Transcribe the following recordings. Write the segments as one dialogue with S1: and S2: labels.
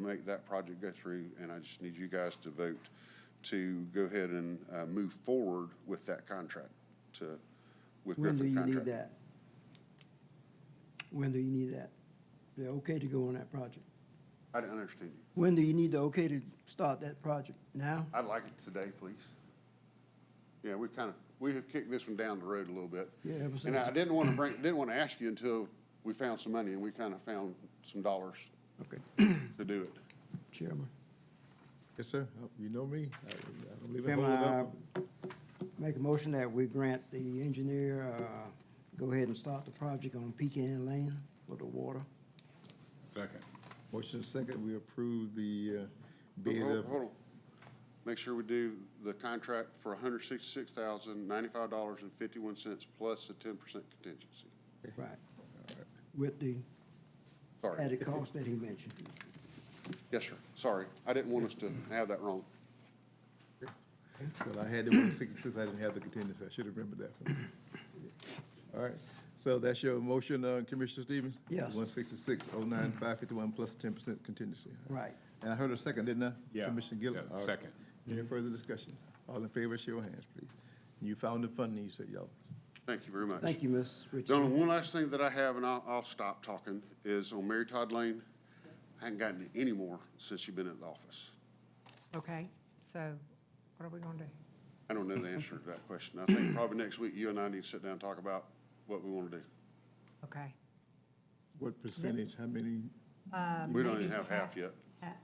S1: make that project go through, and I just need you guys to vote to go ahead and uh, move forward with that contract, to, with
S2: When do
S1: Griffin
S2: you need
S1: contract.
S2: that? When do you need that? The okay to go on that project?
S1: I didn't understand you.
S2: When do you need the okay to start that project? Now?
S1: I'd like it today, please. Yeah, we kind of, we have kicked this one down the road a little bit.
S2: Yeah, ever since-
S1: And I didn't want to bring, didn't want to ask you until we found some money, and we kind of found some dollars
S2: Okay,
S1: to do it.
S2: Chairman.
S3: Yes, sir. Uh, You know me. I I don't leave it
S2: Chairman,
S3: holding
S2: I
S3: up.
S2: make a motion that we grant the engineer, uh, go ahead and start the project on Pecan Lane for the water.
S4: Second.
S3: Motion second, we approve the uh,
S1: But
S3: bid
S1: Hold
S3: of,
S1: hold on. Make sure we do the contract for hundred sixty-six thousand, ninety-five dollars and fifty-one cents plus a ten percent contingency.
S2: Right. With the
S1: Sorry.
S2: added cost that he mentioned.
S1: Yes, sir. Sorry. I didn't want us to have that wrong.
S3: but I had the one sixty-six, I didn't have the contingency. I should have remembered that. All right, so that's your motion, uh, Commissioner Stevens?
S2: Yes. Mm-hmm.
S3: One sixty-six, oh nine, five fifty-one plus ten percent contingency.
S2: Right.
S3: And I heard a second, didn't I?
S4: Yeah.
S3: Commissioner Gillum?
S4: Yeah,
S3: All right.
S4: second.
S3: Any further discussion? All in favor, show your hands, please. You found the funding, you said, y'all.
S1: Thank you very much.
S2: Thank you, Ms.
S1: The
S2: Richardson.
S1: only one last thing that I have, and I'll, I'll stop talking, is on Mary Todd Lane. I haven't gotten it any more since you've been in the office.
S5: Okay, so what are we going to do?
S1: I don't know the answer to that question. I think probably next week, you and I need to sit down and talk about what we want to do.
S5: Okay.
S3: What percentage, how many?
S1: We don't
S5: maybe
S1: even have half yet.
S5: half.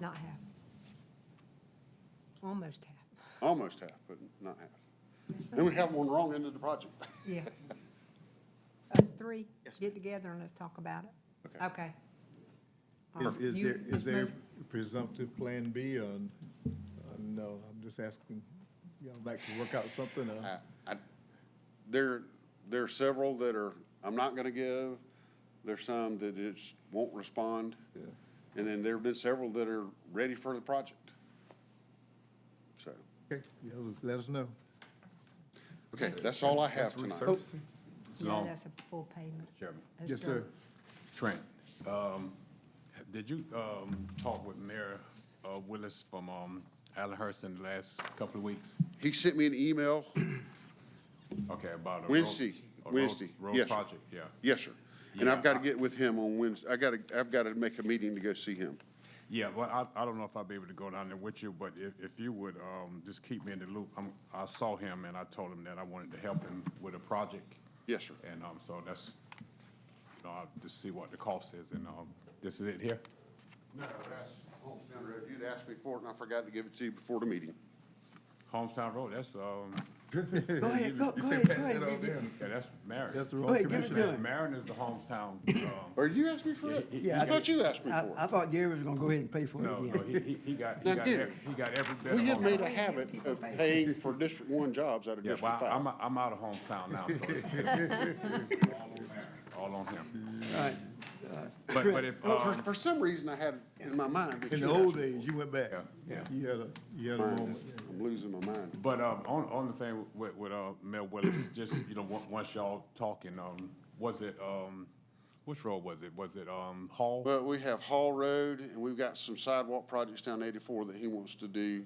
S5: Not half. Almost half.
S1: Almost half, but not half. And we have one wrong end of the project.
S5: Yeah. Us three, get together and let's talk about it.
S1: Okay.
S5: Okay. All
S3: Is,
S5: right.
S3: is
S5: Um, You-
S3: there, is
S5: Ms.
S3: there
S5: Murphy?
S3: presumptive plan B on, on, no, I'm just asking, y'all like to work out something,
S1: I,
S3: uh,
S1: I, there, there are several that are, I'm not gonna give. There's some that just won't respond. And then there've been several that are ready for the project. So,
S3: okay, y'all let us know.
S1: okay, that's all I have
S3: That's
S1: tonight.
S3: research.
S5: No,
S4: Long-
S5: that's a full payment.
S4: Chairman.
S5: That's
S3: Yes, sir.
S5: done.
S4: Trent, um, did you, um, talk with Mayor, uh, Willis from, um, Allenhurst in the last couple of weeks?
S1: He sent me an email,
S4: Okay, about a. road-
S1: Wednesday,
S4: a road-
S1: Wednesday,
S4: Road
S1: yes, sir.
S4: project, yeah.
S1: yes, sir. And I've
S4: Yeah.
S1: gotta get with him on Wednesday. I gotta, I've gotta make a meeting to go see him.
S4: Yeah, well, I, I don't know if I'll be able to go down there with you, but if, if you would, um, just keep me in the loop. I'm, I saw him and I told him that I wanted to help him with a project.
S1: Yes, sir.
S4: And, um, so that's, you know, I'll just see what the cost is and, um, this is it here?
S1: No, that's Homestead Road. You'd asked me for it and I forgot to give it to you before the meeting.
S4: Homestown Road, that's, um,
S2: Go ahead, go,
S3: You
S2: go ahead,
S3: said
S2: go
S3: pass that on
S2: ahead.
S3: down.
S4: yeah, that's Marion.
S3: That's the
S2: Go
S3: wrong
S2: ahead, give it
S3: commissioner.
S2: to him.
S4: Marion is the hometown, um,
S1: Or you asked me for it?
S2: Yeah,
S1: I thought you asked me
S2: I,
S1: for
S2: I
S1: it.
S2: thought Gary was gonna go ahead and pay for it
S4: no,
S2: again.
S4: no, he, he, he got, he
S1: Now,
S4: got,
S1: Gary,
S4: every- he got every bit of
S1: We have made a
S4: hometown.
S1: habit of paying for District One jobs out of
S4: Yeah,
S1: District
S4: well, I'm,
S1: Five.
S4: I'm out of hometown now, so. it's- All on him.
S2: All right.
S4: But, but if,
S1: Well, For,
S4: um,
S1: for some reason, I had in my mind that
S3: In
S1: you
S3: the
S1: asked
S3: old
S1: me
S3: days, you went back.
S4: Yeah, yeah.
S3: You had a, you had a
S1: for mine.
S3: moment.
S1: I'm losing my mind.
S4: But um, on, on the thing with, with uh, Mayor Willis, just, you know, on- once y'all talking, um, was it, um, which road was it? Was it um, Hall?
S1: But we have Hall Road, and we've got some sidewalk projects down eighty-four that he wants to do.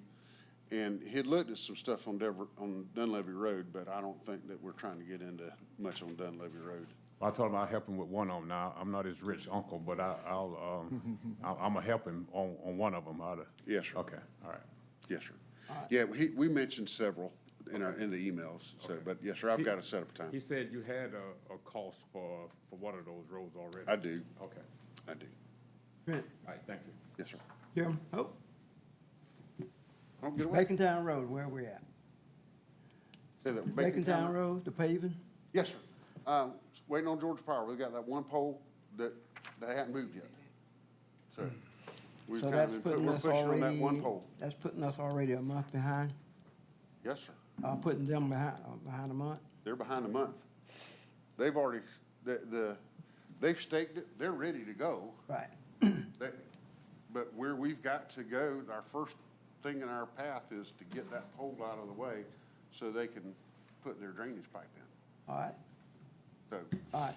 S1: And he had looked at some stuff on Dever, on Dunleavy Road, but I don't think that we're trying to get into much on Dunleavy Road.
S4: I told him I'd help him with one of them. Now, I'm not his rich uncle, but I, I'll, um, I- I'm gonna help him on, on one of them. I'll-
S1: Yes, sir.
S4: Okay, all right.
S1: Yes, sir. Yeah, he, we mentioned several in our, in the emails, so, but yes, sir, I've got to set up a
S4: He
S1: time.
S4: said you had a, a cost for, for one of those roads already.
S1: I do,
S4: Okay,
S1: I do.
S2: Trent,
S4: all right, thank you.
S1: Yes, sir.
S2: Chairman, oh,
S1: Oh, get away.
S2: Bacontown Road, where we at?
S1: Say that.
S2: Bacontown Road, the paving?
S1: Yes, sir. Um, waiting on Georgia Power. We've got that one pole that they hadn't moved yet. So we've
S2: So
S1: kind of
S2: that's
S1: been, put-
S2: putting
S1: we're
S2: us
S1: pushing on that
S2: already,
S1: one pole.
S2: that's putting us already a month behind,
S1: Yes, sir.
S2: uh, putting them behind, uh, behind a month.
S1: They're behind a month. They've already, the, the, they've staked it. They're ready to go.
S2: Right.
S1: They, but where we've got to go, our first thing in our path is to get that pole out of the way so they can put their drainage pipe in.
S2: All right,
S1: So
S2: all right.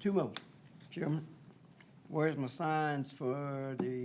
S2: Two more, Chairman. where's my signs for the